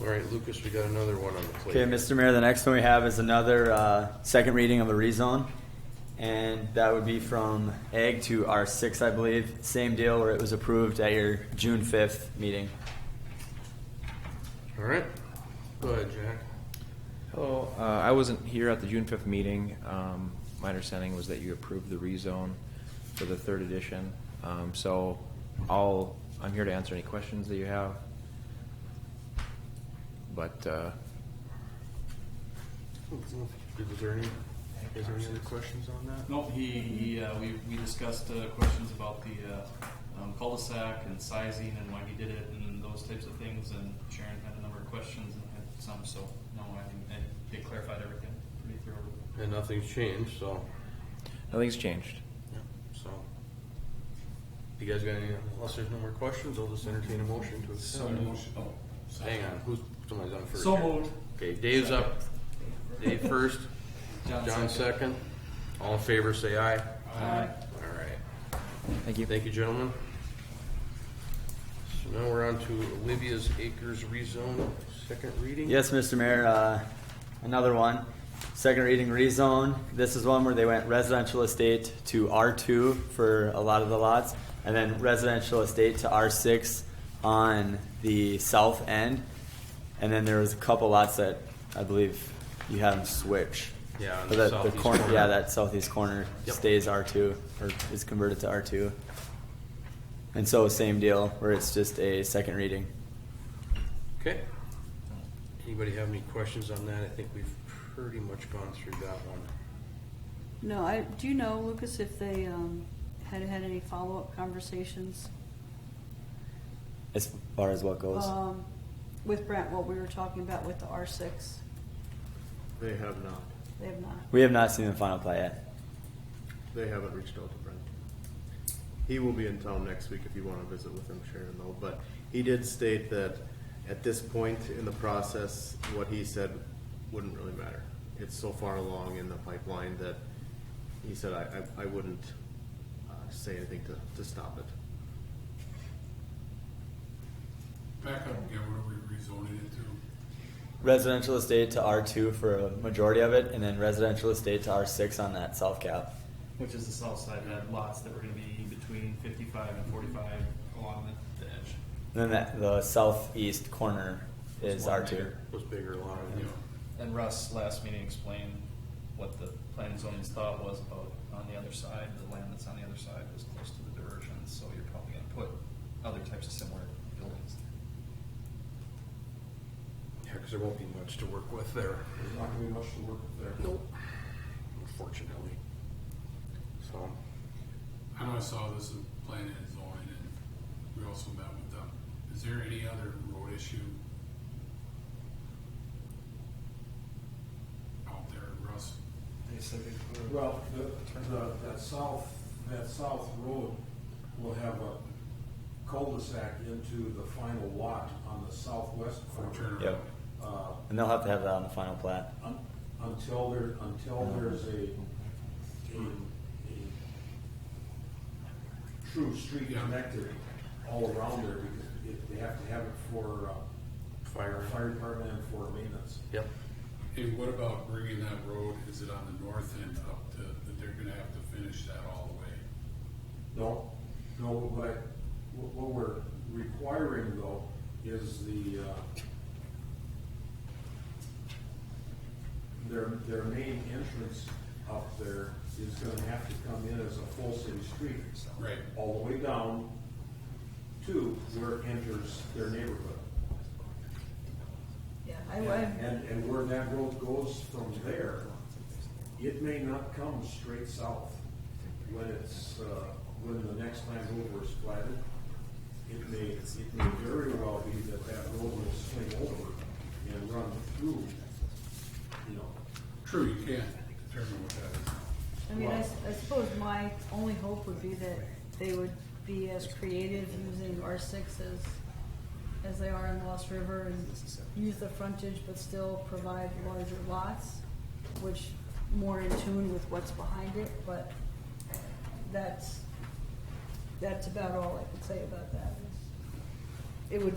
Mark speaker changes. Speaker 1: All right, Lucas, we got another one on the plate.
Speaker 2: Okay, Mr. Mayor, the next one we have is another uh, second reading of a rezone. And that would be from egg to R6, I believe. Same deal where it was approved at your June 5th meeting.
Speaker 1: All right, go ahead, Jack.
Speaker 3: Hello, uh, I wasn't here at the June fifth meeting. Um, my understanding was that you approved the rezone for the third edition. Um, so I'll, I'm here to answer any questions that you have. But, uh,
Speaker 1: Is there any, is there any other questions on that?
Speaker 4: No, he, he, uh, we, we discussed, uh, questions about the, uh, um, cul-de-sac and sizing and why he did it and those types of things, and Sharon had a number of questions and had some, so, no, I think, and they clarified everything pretty thoroughly.
Speaker 1: And nothing's changed, so,
Speaker 3: nothing's changed.
Speaker 1: so. You guys got any, unless there's no more questions, I'll just entertain a motion to accept.
Speaker 4: Oh, sorry.
Speaker 1: Hang on, who's, somebody's on first.
Speaker 4: So
Speaker 1: here.
Speaker 4: moved.
Speaker 1: Okay, Dave's up. Dave first,
Speaker 4: John
Speaker 1: John
Speaker 4: second.
Speaker 1: second. All in favor, say aye.
Speaker 4: Aye.
Speaker 1: All right,
Speaker 3: Thank you.
Speaker 1: thank you, gentlemen. So now we're on to Olivia's Acres rezone, second reading?
Speaker 2: Yes, Mr. Mayor, uh, another one. Second reading rezone. This is one where they went residential estate to R2 for a lot of the lots, and then residential estate to R6 on the south end. And then there was a couple lots that I believe you have them switch.
Speaker 1: Yeah, on
Speaker 2: But
Speaker 1: the
Speaker 2: that-
Speaker 1: southeast
Speaker 2: corner-
Speaker 1: corner.
Speaker 2: Yeah, that southeast corner
Speaker 1: Yep.
Speaker 2: stays R2 or is converted to R2. And so same deal where it's just a second reading.
Speaker 1: Okay. Anybody have any questions on that? I think we've pretty much gone through that one.
Speaker 5: No, I, do you know, Lucas, if they, um, had had any follow-up conversations?
Speaker 2: As far as what goes.
Speaker 5: Um, with Brent, what we were talking about with the R six?
Speaker 6: They have not.
Speaker 5: They have not.
Speaker 2: We have not seen the final plat yet.
Speaker 6: They haven't reached out to Brent. He will be in town next week if you want to visit with him, Sharon, though. But he did state that at this point in the process, what he said wouldn't really matter. It's so far along in the pipeline that he said, I, I, I wouldn't uh, say anything to, to stop it.
Speaker 7: Back up again, what are we rezoning it to?
Speaker 2: Residential estate to R two for a majority of it, and then residential estate to R six on that south cap.
Speaker 4: Which is the south side, had lots that were gonna be between fifty-five and forty-five along the, the edge.
Speaker 2: And then that, the southeast corner is
Speaker 4: It's one
Speaker 2: R two.
Speaker 4: acre.
Speaker 1: Those bigger lot, you know.
Speaker 4: And Russ, last meeting, explained what the planning zoning's thought was about on the other side, the land that's on the other side was close to the diversion, so you're probably gonna put other types of similar buildings there.
Speaker 1: Yeah, because there won't be much to work with there.
Speaker 7: There's not gonna be much to work there.
Speaker 1: Nope. Unfortunately. So,
Speaker 7: I know I saw this in planning and zoning, and we also met with them. Is there any other road issue out there, Russ?
Speaker 4: They said they put.
Speaker 8: Well, the, the, that south, that south road will have a cul-de-sac into the final lot on the southwest
Speaker 7: Or
Speaker 8: corner.
Speaker 7: turn
Speaker 2: Yep.
Speaker 7: around?
Speaker 8: Uh,
Speaker 2: And they'll have to have that on the final plat.
Speaker 8: un- until there, until there's a, a, a true street
Speaker 7: Yeah.
Speaker 8: connected all around there, because it, they have to have it for, uh, fire, fire department and for maintenance.
Speaker 1: yep.
Speaker 7: Hey, what about bringing that road, is it on the north end up to, that they're gonna have to finish that all the way?
Speaker 8: No, no, what, I- what what we're requiring though is the, uh, their, their main entrance up there is gonna have to come in as a full city street.
Speaker 7: Right.
Speaker 8: All the way down to where it enters their neighborhood.
Speaker 5: Yeah,
Speaker 8: And, and where that road goes from there, it may not come straight south when it's, uh, when the next time over is platted. It may, it may very well be that that road will swing over and run through, you know.
Speaker 7: True, you can't determine what that is.
Speaker 5: I mean, I, s- I suppose my only hope would be that they would be as creative using R six as, as they are in Lost River and use the frontage but still provide larger lots, which more in tune with what's behind it, but that's, that's about all I could say about that. It would